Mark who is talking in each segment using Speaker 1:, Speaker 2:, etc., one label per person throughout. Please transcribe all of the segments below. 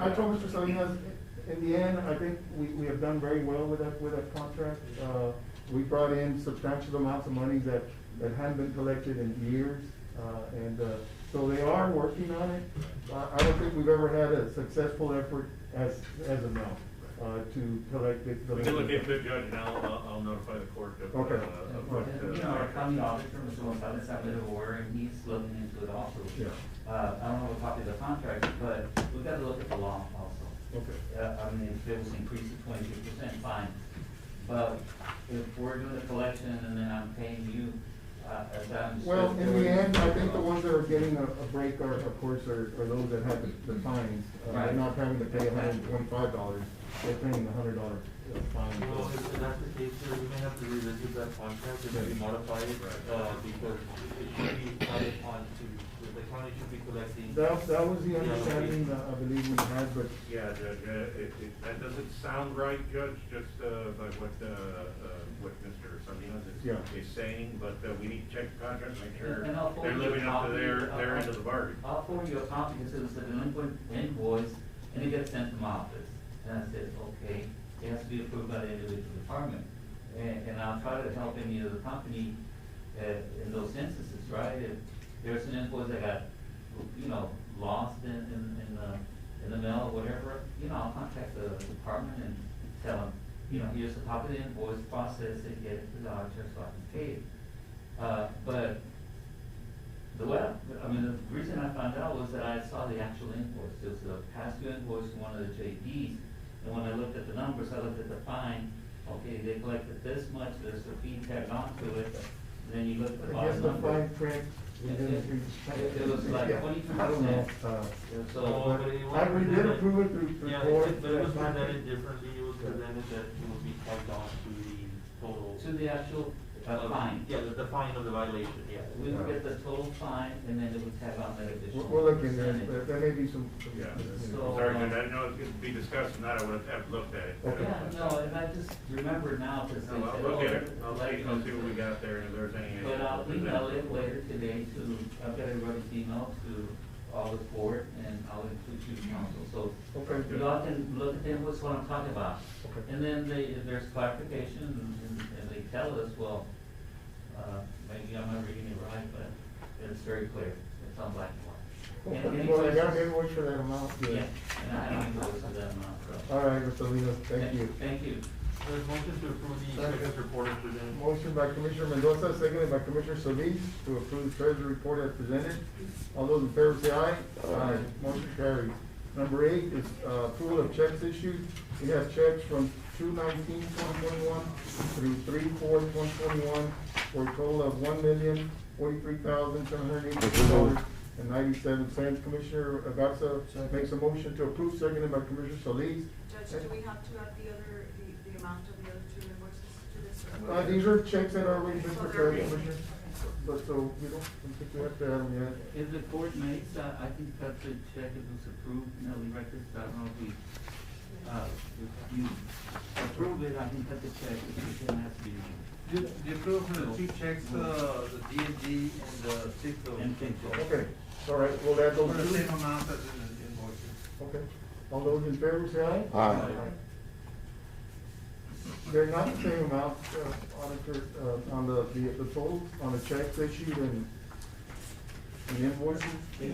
Speaker 1: I told Mr. Salinas, in the end, I think we, we have done very well with that, with that contract. Uh, we brought in substantial amounts of money that, that hadn't been collected in years. Uh, and, uh, so they are working on it. I, I don't think we've ever had a successful effort as, as of now, uh, to collect it.
Speaker 2: We can look into it, Judge, and I'll, I'll- I'll notify the court of, uh,
Speaker 1: Okay.
Speaker 2: of what,
Speaker 1: Okay.
Speaker 2: uh,
Speaker 3: You know, our county auditor, Mr. Gonzalez, I live over, and he's looking into it also.
Speaker 1: Yeah.
Speaker 3: Uh, I don't have a copy of the contract, but we've got to look at the law also.
Speaker 1: Okay.
Speaker 3: Uh, I mean, if it was increased to twenty-two percent, fine. But if we're doing a collection and then I'm paying you, uh, as I'm.
Speaker 1: Well, in the end, I think the ones that are getting a, a break are, of course, are, are those that have the- the fines. Uh, They're
Speaker 3: Right.
Speaker 1: not having to pay hundred and twenty-five dollars, they're paying a hundred dollar uh, fine.
Speaker 4: Well, if if that's the case, sir, we may have to revisit that contract and maybe modify it, uh, because it should be added on to, the county should be collecting.
Speaker 1: That, that was the understanding that I believe we had, but
Speaker 2: yeah, Judge, uh, it, it, that doesn't sound right, Judge, just, uh, by what, uh, uh, what Mr. Salinas
Speaker 1: Yeah.
Speaker 2: is, is saying, but, uh, we need to check the contract, make sure
Speaker 3: And- and I'll forward you
Speaker 2: they're
Speaker 3: a
Speaker 2: living up to
Speaker 3: copy
Speaker 2: their,
Speaker 3: of-
Speaker 2: their end of the bargain.
Speaker 3: I'll forward you a copy, because it was a delinquent invoice, and it gets sent to my office. And I said, okay, it has to be approved by the individual department. And, and I'll try to help any other company, uh, in those instances, right? If there's an invoice that got, you know, lost in, in, in the, in the mail or whatever, you know, I'll contact the department and tell them, you know, here's a copy of the invoice, process it, get it to the auditor so I can pay it. Uh, but the way, I I mean, the reason I found out was that I saw the actual invoice, it was the past due invoice in one of the JDs, and when I looked at the numbers, I looked at the fine, okay, they collected this much, there's a fee tagged onto it, then you look at the
Speaker 1: I guess
Speaker 3: bottom
Speaker 1: the
Speaker 3: number.
Speaker 1: fine print. we didn't-
Speaker 3: It- it was like
Speaker 1: Yeah,
Speaker 3: 22%.
Speaker 1: I don't know, uh,
Speaker 3: And
Speaker 4: Oh,
Speaker 3: So,
Speaker 4: but it was
Speaker 1: I- we did
Speaker 4: presented-
Speaker 1: approve it through- through
Speaker 4: Yeah,
Speaker 1: court,
Speaker 4: it- but it
Speaker 1: that's
Speaker 4: was
Speaker 1: not-
Speaker 4: presented differently, it was presented that it would be tagged on to the total.
Speaker 3: to the actual uh,
Speaker 4: of-
Speaker 3: fine,
Speaker 4: Yeah, the, the fine of the violation, yeah.
Speaker 3: we would get the total fine, and then it would tag on that
Speaker 1: we're,
Speaker 3: additional.
Speaker 1: we're looking, there,
Speaker 3: percentage.
Speaker 1: there there may be some. some-
Speaker 2: Yeah,
Speaker 1: you know.
Speaker 3: So- um,
Speaker 2: sorry, Judge, I didn't know it could be discussed, and that I would have looked at it.
Speaker 1: Okay.
Speaker 3: Yeah, no, and I just remember now, because they said,
Speaker 2: I'll I'll
Speaker 3: oh.
Speaker 2: look at it, I'll see,
Speaker 3: like-
Speaker 2: I'll see what we got there, and if there's any.
Speaker 3: But uh, I'll email it later today to, I've got everybody's email to all the board and I'll include you council, so.
Speaker 1: Okay.
Speaker 3: You all can look at them, what's what I'm talking about.
Speaker 1: Okay.
Speaker 3: And then they, if there's clarification and, and they tell us, well, uh, maybe I'm not reading it right, but it's very clear, it's on black and white. And any
Speaker 1: Well, they got
Speaker 3: questions?
Speaker 1: invoice for that amount, yeah.
Speaker 3: Yeah, and I have any questions on that amount, so.
Speaker 1: All right, Mr. Salinas, thank you.
Speaker 3: Thank you.
Speaker 4: There's motion to approve the
Speaker 1: Second.
Speaker 4: inspector's report as presented.
Speaker 1: Motion by Commissioner Mendoza, seconded by Commissioner Solis to approve the treasury report as presented. All those in favor say aye. Aye. Motion carries. Number eight is uh, approval of checks issued. We have checks from 219-2021 through 3-4-2021 for a total of one million, forty-three thousand, seven hundred eighty-two dollars and ninety-seven cents. Commissioner Gatsa makes a motion to approve, seconded by Commissioner Solis.
Speaker 5: Judge, do we have to add the other, the, the amount of the other two invoices to this? or-
Speaker 1: Uh, these are checks that are already
Speaker 5: So
Speaker 1: been
Speaker 5: they're
Speaker 1: prepared,
Speaker 5: written.
Speaker 1: Commissioner. But so we don't, I think we have to have them yet.
Speaker 3: If the court makes, uh, I think that's a check if it's approved, you know, the records, I don't know if we, uh, if you approve it, I think that's a check, it doesn't have to be.
Speaker 4: Do you approve the two checks, uh, the D and D and the six of?
Speaker 3: And think so.
Speaker 1: Okay, all right, we'll add
Speaker 6: Oh,
Speaker 4: For
Speaker 1: those
Speaker 4: the same
Speaker 1: two.
Speaker 4: amount as in the invoices.
Speaker 1: Okay, all those in favor say aye?
Speaker 7: Aye.
Speaker 1: They're not the same amount, uh, auditor, uh, on the, the, the total, on the checks issued and and invoices
Speaker 3: It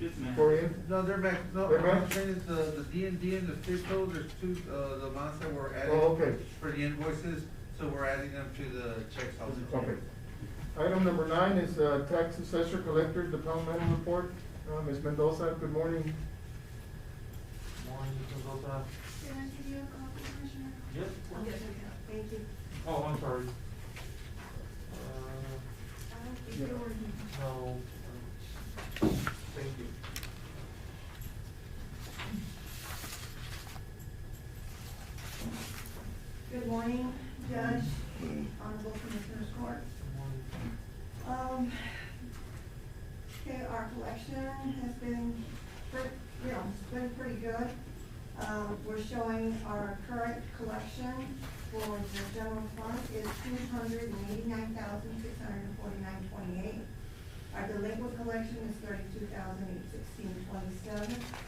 Speaker 3: should match.
Speaker 1: for in,
Speaker 6: No, they're back, no,
Speaker 1: They're
Speaker 6: what I'm
Speaker 1: back?
Speaker 6: saying is the, the D and D and the FIPO, there's two, uh, the amounts that were added.
Speaker 1: Oh, okay.
Speaker 6: For the invoices, so we're adding them to the checks also.
Speaker 1: okay. Item number nine is, uh, tax assessor collector departmental report. Uh, Ms. Mendoza, good morning.
Speaker 4: One, you can go back.
Speaker 8: Can I give you a call, Commissioner?
Speaker 4: Yes.
Speaker 5: Yes.
Speaker 8: Thank you.
Speaker 4: Oh, I'm sorry.
Speaker 8: I don't think Uh, you were here.
Speaker 4: Uh, no. Thank you.
Speaker 8: Good morning, Judge, Honorable Commissioners Court. Um, okay, our collection has been, pre- you know, it's been pretty good. Um, we're showing our current collection for the general fund is two hundred and eighty-nine thousand, six hundred and forty-nine, twenty-eight. Our delinquent collection is thirty-two thousand, eight sixteen, twenty-seven,